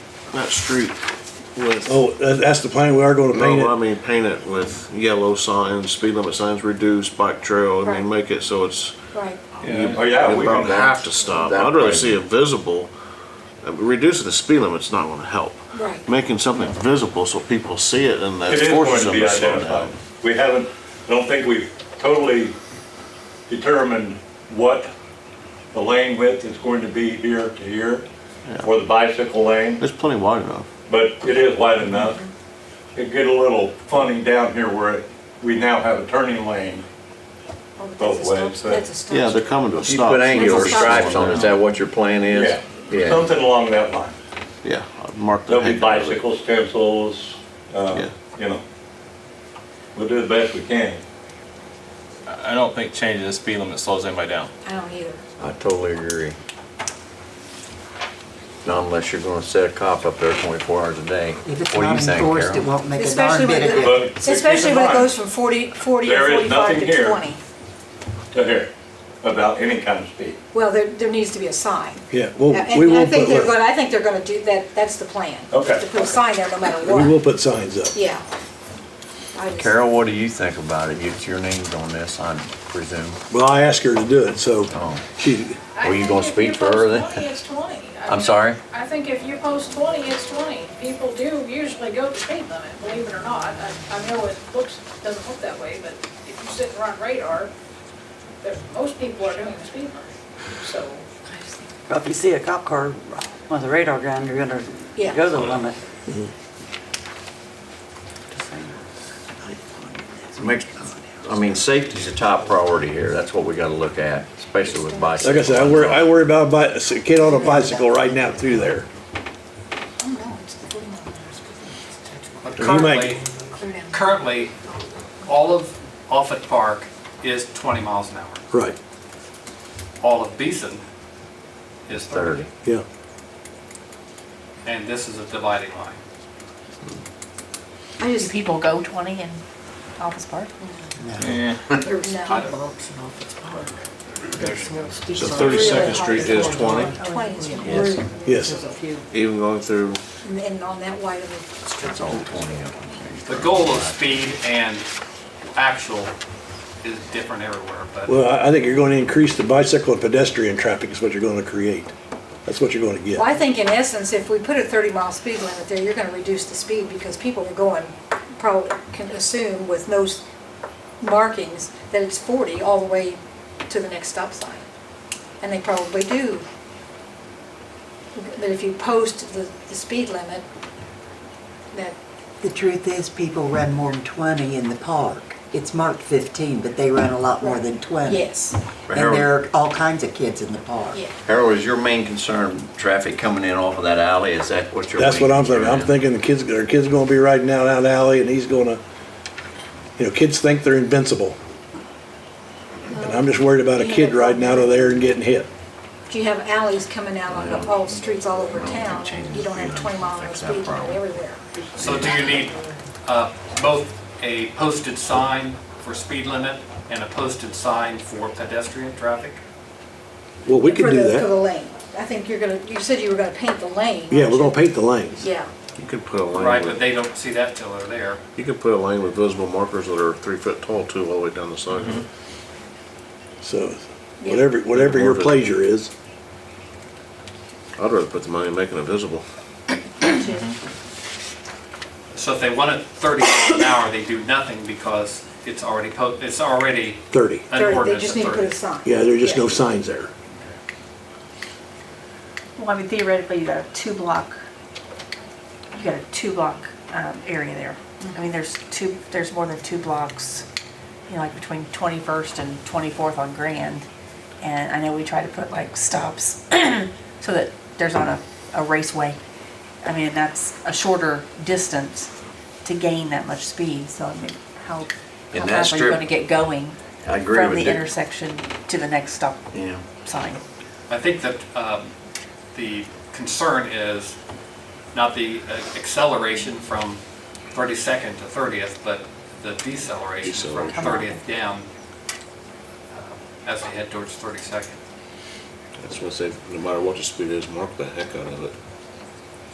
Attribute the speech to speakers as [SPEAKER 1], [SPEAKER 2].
[SPEAKER 1] that street with.
[SPEAKER 2] Oh, that- that's the plan, we are gonna paint
[SPEAKER 1] No, I
[SPEAKER 2] it.
[SPEAKER 1] mean, paint it with yellow signs, speed limit signs, reduce bike trail, I
[SPEAKER 3] Right.
[SPEAKER 1] mean, make it so it's,
[SPEAKER 3] Right.
[SPEAKER 4] Oh, yeah,
[SPEAKER 1] you
[SPEAKER 4] we can
[SPEAKER 1] about have
[SPEAKER 4] have,
[SPEAKER 1] to stop.
[SPEAKER 4] that
[SPEAKER 1] I'd rather
[SPEAKER 4] way.
[SPEAKER 1] see it visible. Uh, Reducing the speed limit's not gonna help.
[SPEAKER 3] Right.
[SPEAKER 1] Making something visible so people see it and that
[SPEAKER 4] it is going
[SPEAKER 1] forces
[SPEAKER 4] to
[SPEAKER 1] them
[SPEAKER 4] be
[SPEAKER 1] to slow down.
[SPEAKER 4] identified. We haven't, I don't think we've totally determined what the lane width is going to be here to here for the bicycle lane,
[SPEAKER 1] It's plenty wide enough.
[SPEAKER 4] but it is wide enough. It get a little funny down here where we now have a turning lane.
[SPEAKER 3] Oh, but
[SPEAKER 4] Both
[SPEAKER 3] that's a stop-
[SPEAKER 4] ways, but-
[SPEAKER 3] That's a stop.
[SPEAKER 1] Yeah, they're coming to a
[SPEAKER 5] You
[SPEAKER 1] stop.
[SPEAKER 5] put
[SPEAKER 1] so
[SPEAKER 5] angular
[SPEAKER 3] That's a stop
[SPEAKER 5] stripes on, it. is that what your plan is?
[SPEAKER 4] Yeah,
[SPEAKER 6] Um,
[SPEAKER 4] something along that line.
[SPEAKER 1] Yeah, I'd mark the
[SPEAKER 4] There'll be
[SPEAKER 1] heck out of it.
[SPEAKER 4] bicycle stencils, uh, you know. We'll do the best we can.
[SPEAKER 6] I don't think changing the speed limit slows anybody down.
[SPEAKER 3] I don't either.
[SPEAKER 5] I totally agree. Not unless you're gonna set a cop up there twenty-four hours a day.
[SPEAKER 7] If it's
[SPEAKER 5] What do
[SPEAKER 7] not
[SPEAKER 5] you think,
[SPEAKER 7] enforced, it
[SPEAKER 5] Carol?
[SPEAKER 7] won't make a darn
[SPEAKER 3] Especially
[SPEAKER 7] bit
[SPEAKER 3] when,
[SPEAKER 7] of
[SPEAKER 4] it-
[SPEAKER 7] difference.
[SPEAKER 3] it-
[SPEAKER 4] But
[SPEAKER 3] especially when
[SPEAKER 4] keep
[SPEAKER 3] it
[SPEAKER 4] in mind-
[SPEAKER 3] goes from 40, 40 or
[SPEAKER 4] There is
[SPEAKER 3] 45
[SPEAKER 4] nothing
[SPEAKER 3] to
[SPEAKER 4] here.
[SPEAKER 3] 20.
[SPEAKER 4] to here about any kind of speed.
[SPEAKER 3] Well, there, there needs to be a sign.
[SPEAKER 2] Yeah, well,
[SPEAKER 3] And
[SPEAKER 2] Oh, we
[SPEAKER 3] I
[SPEAKER 2] will
[SPEAKER 3] think
[SPEAKER 2] put,
[SPEAKER 3] they're
[SPEAKER 2] look,
[SPEAKER 3] gonna, I think they're gonna do that, that's the plan.
[SPEAKER 4] Okay.
[SPEAKER 3] To put a sign there no matter
[SPEAKER 2] we will
[SPEAKER 3] what.
[SPEAKER 2] put signs up.
[SPEAKER 3] Yeah. I just-
[SPEAKER 5] Carol, what do you think about it? It's your names on this, I presume.
[SPEAKER 2] Well, I asked her to do it, so
[SPEAKER 5] Oh.
[SPEAKER 2] she,
[SPEAKER 5] Were you gonna speak for her then?
[SPEAKER 8] I think if you post 20, it's 20. I
[SPEAKER 5] I'm
[SPEAKER 8] mean,
[SPEAKER 5] sorry?
[SPEAKER 8] I think if you post 20, it's 20. People do usually go to speed limit, believe it or not. I I know it looks, doesn't look that way, but if you sit and run radar, there- most people are doing the speed limit. So
[SPEAKER 9] Well, If you see a cop car with a radar gun, you're gonna
[SPEAKER 3] Yeah. Mm-hmm.
[SPEAKER 9] go the limit.
[SPEAKER 5] Makes, I mean, safety's a top priority here, that's what we gotta look at, especially with bicycles.
[SPEAKER 2] like I said, I worry, I worry about a bi- a kid on a bicycle riding out through there.
[SPEAKER 3] Oh, no, it's the 40 mile an hour speed limit. It's touchable.
[SPEAKER 10] But
[SPEAKER 2] You might-
[SPEAKER 10] currently,
[SPEAKER 3] Clear down.
[SPEAKER 10] currently, all of Offutt Park is 20 miles an hour.
[SPEAKER 2] Right,
[SPEAKER 10] All of Beeson is 30.
[SPEAKER 5] Thirty.
[SPEAKER 2] yeah.
[SPEAKER 10] And this is a dividing line.
[SPEAKER 3] I
[SPEAKER 11] Do
[SPEAKER 3] just,
[SPEAKER 11] people go 20 in Office Park?
[SPEAKER 3] no.
[SPEAKER 1] So 32nd Street is 20,
[SPEAKER 3] 20 is what
[SPEAKER 5] Yes.
[SPEAKER 3] we're-
[SPEAKER 2] Yes.
[SPEAKER 7] There's a few.
[SPEAKER 1] even going through,
[SPEAKER 3] and- And on that wide of a street.
[SPEAKER 5] It's all twenty of them.
[SPEAKER 10] The goal of speed and actual is different everywhere, but
[SPEAKER 2] Well, I, I think you're gonna increase the bicycle and pedestrian traffic is what you're gonna create. That's what you're gonna
[SPEAKER 3] Well, I
[SPEAKER 2] get.
[SPEAKER 3] think in essence, if we put a 30 mile speed limit there, you're gonna reduce the speed because people are going, probably can assume with no s- markings that it's 40 all the way to the next stop sign. And they probably do. But if you post the, the speed limit, that,
[SPEAKER 7] The truth is, people run more than 20 in the park. It's marked 15, but they run a lot more than 20.
[SPEAKER 3] yes,
[SPEAKER 5] But
[SPEAKER 7] And there
[SPEAKER 5] Harold,
[SPEAKER 7] are all kinds of kids in the park.
[SPEAKER 3] yeah.
[SPEAKER 5] Harold, is your main concern traffic coming in off of that alley, is that what you're?
[SPEAKER 2] That's what I'm thinking. I'm thinking the kids, our kids gonna be riding out out alley and he's gonna, you know, kids think they're invincible. And I'm just worried about a kid riding out of there and getting hit.
[SPEAKER 3] If you have alleys coming out on the- all the streets all over
[SPEAKER 5] I don't think
[SPEAKER 3] town,
[SPEAKER 5] changing
[SPEAKER 3] you don't have
[SPEAKER 5] the
[SPEAKER 3] 20 mile an hour
[SPEAKER 5] speed
[SPEAKER 3] speed
[SPEAKER 5] limit's gonna fix that
[SPEAKER 3] limit
[SPEAKER 5] problem.
[SPEAKER 3] everywhere.
[SPEAKER 10] so do you need uh, both a posted sign for speed limit and a posted sign for pedestrian traffic?
[SPEAKER 2] Well, we can
[SPEAKER 3] For
[SPEAKER 2] do
[SPEAKER 3] the- For the
[SPEAKER 2] that.
[SPEAKER 3] lane. I think you're gonna, you said you were gonna paint the lane.
[SPEAKER 2] Yeah,
[SPEAKER 3] aren't
[SPEAKER 2] we're gonna
[SPEAKER 3] you?
[SPEAKER 2] paint the lanes.
[SPEAKER 3] Yeah,
[SPEAKER 1] you could put a
[SPEAKER 10] Right,
[SPEAKER 1] lane
[SPEAKER 10] but
[SPEAKER 1] with,
[SPEAKER 10] they don't see that till they're there.
[SPEAKER 1] you could put a lane with visible markers that are three foot tall too, all the way down the side.
[SPEAKER 2] So whatever, whatever your pleasure is.
[SPEAKER 1] I'd rather put the money in making it visible.
[SPEAKER 10] So if they want it 30 miles an hour, they do nothing because it's already, po- it's already
[SPEAKER 2] 30.
[SPEAKER 10] an
[SPEAKER 3] thirty, they
[SPEAKER 10] ordinance
[SPEAKER 3] just
[SPEAKER 10] at
[SPEAKER 3] need to put a
[SPEAKER 10] 30.
[SPEAKER 3] sign.
[SPEAKER 2] Yeah, there are just no signs there.
[SPEAKER 11] Well, I mean theoretically, you got a two-block, you got a two-block um, area there. I mean, there's two, there's more than two blocks, you know, like between 21st and 24th on Grand. And I know we try to put like stops so that there's not a, a raceway. I mean, that's a shorter distance to gain that much speed, so I mean, how,
[SPEAKER 5] In
[SPEAKER 11] how
[SPEAKER 5] that
[SPEAKER 11] fast are you
[SPEAKER 5] strip-
[SPEAKER 11] gonna get going?
[SPEAKER 5] I agree
[SPEAKER 11] From
[SPEAKER 5] with
[SPEAKER 11] the
[SPEAKER 5] Dick.
[SPEAKER 11] intersection to the next stop
[SPEAKER 5] Yeah.
[SPEAKER 11] sign.
[SPEAKER 10] I think that um, the concern is not the uh, acceleration from 32nd to 30th, but the deceleration from
[SPEAKER 11] Come on.
[SPEAKER 10] 30th down uh, as they head towards 32nd.
[SPEAKER 1] That's what I say, no matter what the speed is, mark the heck out of it.